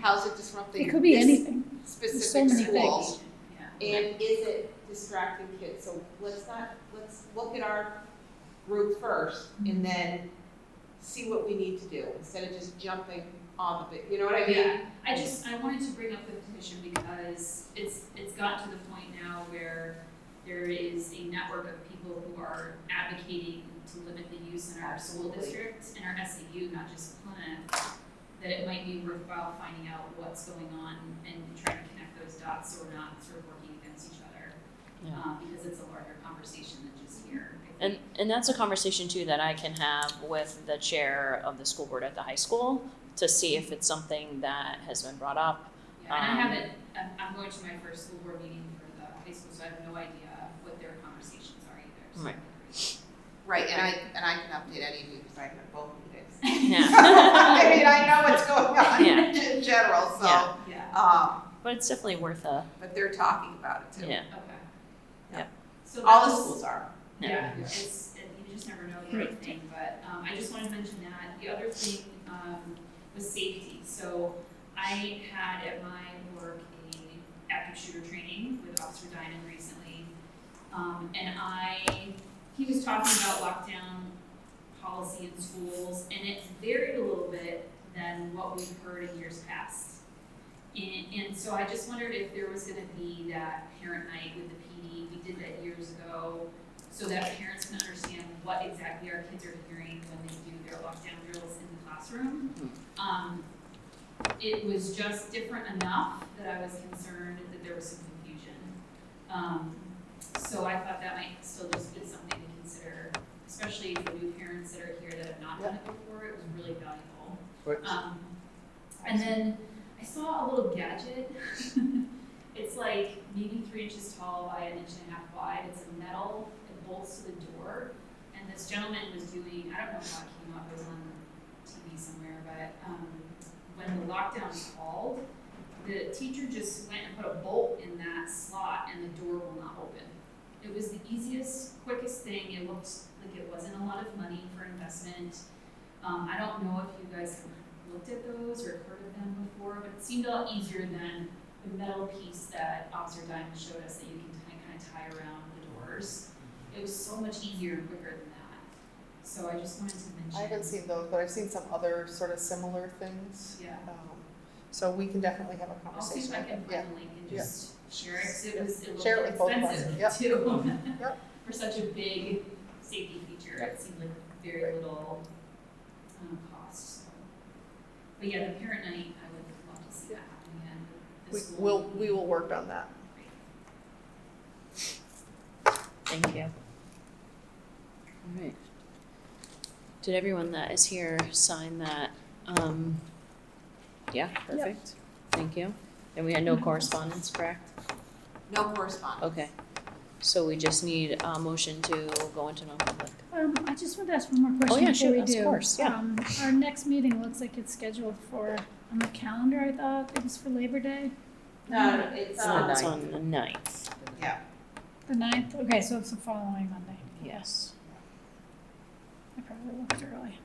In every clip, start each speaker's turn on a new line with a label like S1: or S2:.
S1: How's it disrupting?
S2: It could be
S1: this
S2: anything. There's so
S1: Specific
S2: many
S1: school?
S2: things.
S1: And is it distracting kids? So let's not, let's look at our group first
S2: Mm-hmm.
S1: and then see what we need to do instead of just jumping on the, bit. you know what I mean?
S3: Yeah, I just, I wanted to bring up the petition because it's, it's gotten to the point now where there is a network of people who are advocating to limit the use in our school
S1: Absolutely.
S3: districts, in our SAU, not just Plymouth, that it might be worthwhile finding out what's going on and trying to connect those dots so we're not sort of working against each other.
S4: Yeah.
S3: Uh, because it's a larger conversation than just here. I
S4: And,
S3: think.
S4: and that's a conversation too that I can have with the chair of the school board at the high school to see if it's something that has been brought up.
S3: Yeah, and I
S4: Um,
S3: haven't, I'm, I'm going to my first school board meeting for the high school, so I have no idea what their conversations are either, so.
S4: Right.
S1: Right, and I, and I can update any of you because I've been both meetings. I
S4: Yeah.
S1: mean, I know what's going on
S4: Yeah.
S1: in general, so,
S4: Yeah.
S3: Yeah,
S1: um,
S4: But it's definitely worth a,
S1: but they're talking about it too.
S4: yeah.
S3: okay.
S4: Yep.
S3: So
S1: All the
S3: that's-
S1: schools are.
S3: Yeah, it's, it- you just never know the other thing, but, um, I just wanted to mention that. The other thing, um, was safety. So I had at my work a active shooter training with Officer Dynan recently. Um, and I, he was talking about lockdown policy in schools, and it varied a little bit than what we've heard in years past. And, and so I just wondered if there was gonna be that parent night with the PD, we did that years ago so that parents can understand what exactly our kids are hearing when they do their lockdown drills in the classroom. Um, it was just different enough that I was concerned that there was some confusion. Um, so I thought that might still just be something to consider, especially for new parents that are here that have not done it before, it was really valuable.
S5: Right.
S3: Um, and then I saw a little gadget. it's like maybe three inches tall by an inch and a half wide. It's a metal, it bolts to the door. And this gentleman was doing, I don't know how it came up, it was on TV somewhere, but um, when the lockdown called, the teacher just went and put a bolt in that slot and the door will not open. It was the easiest, quickest thing. It looked like it wasn't a lot of money for investment. Um, I don't know if you guys have looked at those or heard of them before, but it seemed a lot easier than the metal piece that Officer Diamond showed us that you can kind of tie around the doors. It was so much easier and quicker than that. So I just wanted to mention.
S6: I haven't seen those, but I've seen some other sort of similar things.
S3: Yeah.
S6: Um, so we can definitely have a
S3: I'll see if I
S6: conversation.
S3: can
S6: Yeah.
S3: find the link and just share it, 'cause it
S6: Yeah.
S3: was, it
S6: Share it with both
S3: looked
S6: of us. Yep.
S3: expensive too.
S6: Yep.
S3: For such a big safety feature, it seemed like very little, um, cost, so. But yeah, the parent night, I would love to see that happen again. The
S6: We
S3: school
S6: will,
S3: would be
S6: we will work on that.
S3: great.
S4: Thank you. All right. Did everyone that is here sign that? Um, yeah, perfect. Thank you. And we had no correspondence, correct?
S1: No correspondence.
S4: Okay. So we just need a motion to go into non-public. Oh,
S2: Um, I just wanted to ask one more question
S4: yeah,
S2: before
S4: sure,
S2: we
S4: of
S2: do.
S4: course, yeah.
S2: Um, our next meeting looks like it's scheduled for, on the calendar, I thought, it was for Labor Day,
S1: No, it's, um,
S4: It's on the ninth,
S1: yeah,
S2: the ninth, okay, so it's the following Monday.
S4: yes.
S2: I probably looked early.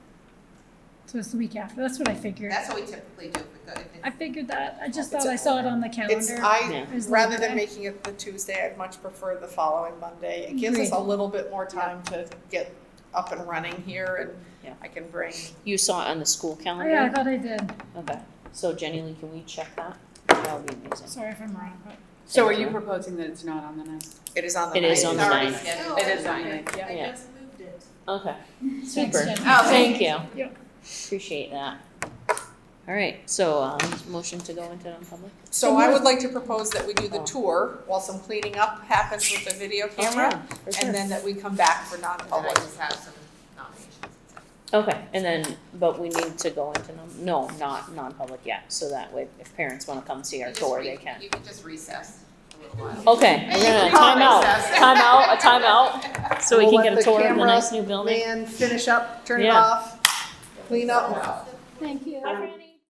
S2: So it's the week after, that's what I figured.
S1: that's what we typically do if we go, if
S2: I
S1: it's,
S2: figured that, I just
S6: It's
S2: thought I
S6: a-
S2: saw it on the
S6: It's,
S2: calendar.
S6: I,
S2: as
S6: rather
S2: Labor
S6: than
S2: Day.
S6: making it the Tuesday, I'd much prefer the following Monday. It gives us a
S2: Agreed.
S6: little bit more time to get up and running here
S4: Yeah.
S6: and I can bring,
S4: You saw it on the school
S2: Oh, yeah, I
S4: calendar?
S2: thought I did,
S4: Okay. So Jenny Lee, can we check that? That would be amazing.
S2: sorry if I'm wrong, but.
S7: So are you proposing that it's not on the ninth?
S6: it is on the
S4: It
S6: ninth.
S4: is on the
S1: already
S4: ninth.
S1: scheduled.
S7: It is on the ninth, yeah.
S4: Yeah.
S1: just moved it.
S4: Okay,
S2: Thanks,
S4: super.
S2: Jen.
S1: Oh,
S4: Thank you.
S2: Yeah.
S4: Appreciate that. All right, so, um, motion to go into non-public?
S6: So I would like to propose that we do the
S4: Oh.
S6: tour while some cleaning up happens with the video
S3: Oh,
S6: camera.
S4: For sure.
S6: And then that we come back for
S1: And I
S6: non-public.
S1: just have some nominations.
S4: Okay, and then, but we need to go into, non- no, not non-public yet, so that way if parents wanna come see our
S1: You just
S4: tour,
S1: re-
S4: they can.
S1: You can just recess a little while.
S4: Okay, we're gonna time out, time out, a time out, so we
S6: We'll
S4: can
S6: let
S4: get a
S6: the
S4: tour of the
S6: camera
S4: nice new building.
S6: Man, finish up, turn it
S4: Yeah.
S6: off, clean up.
S2: Thank you.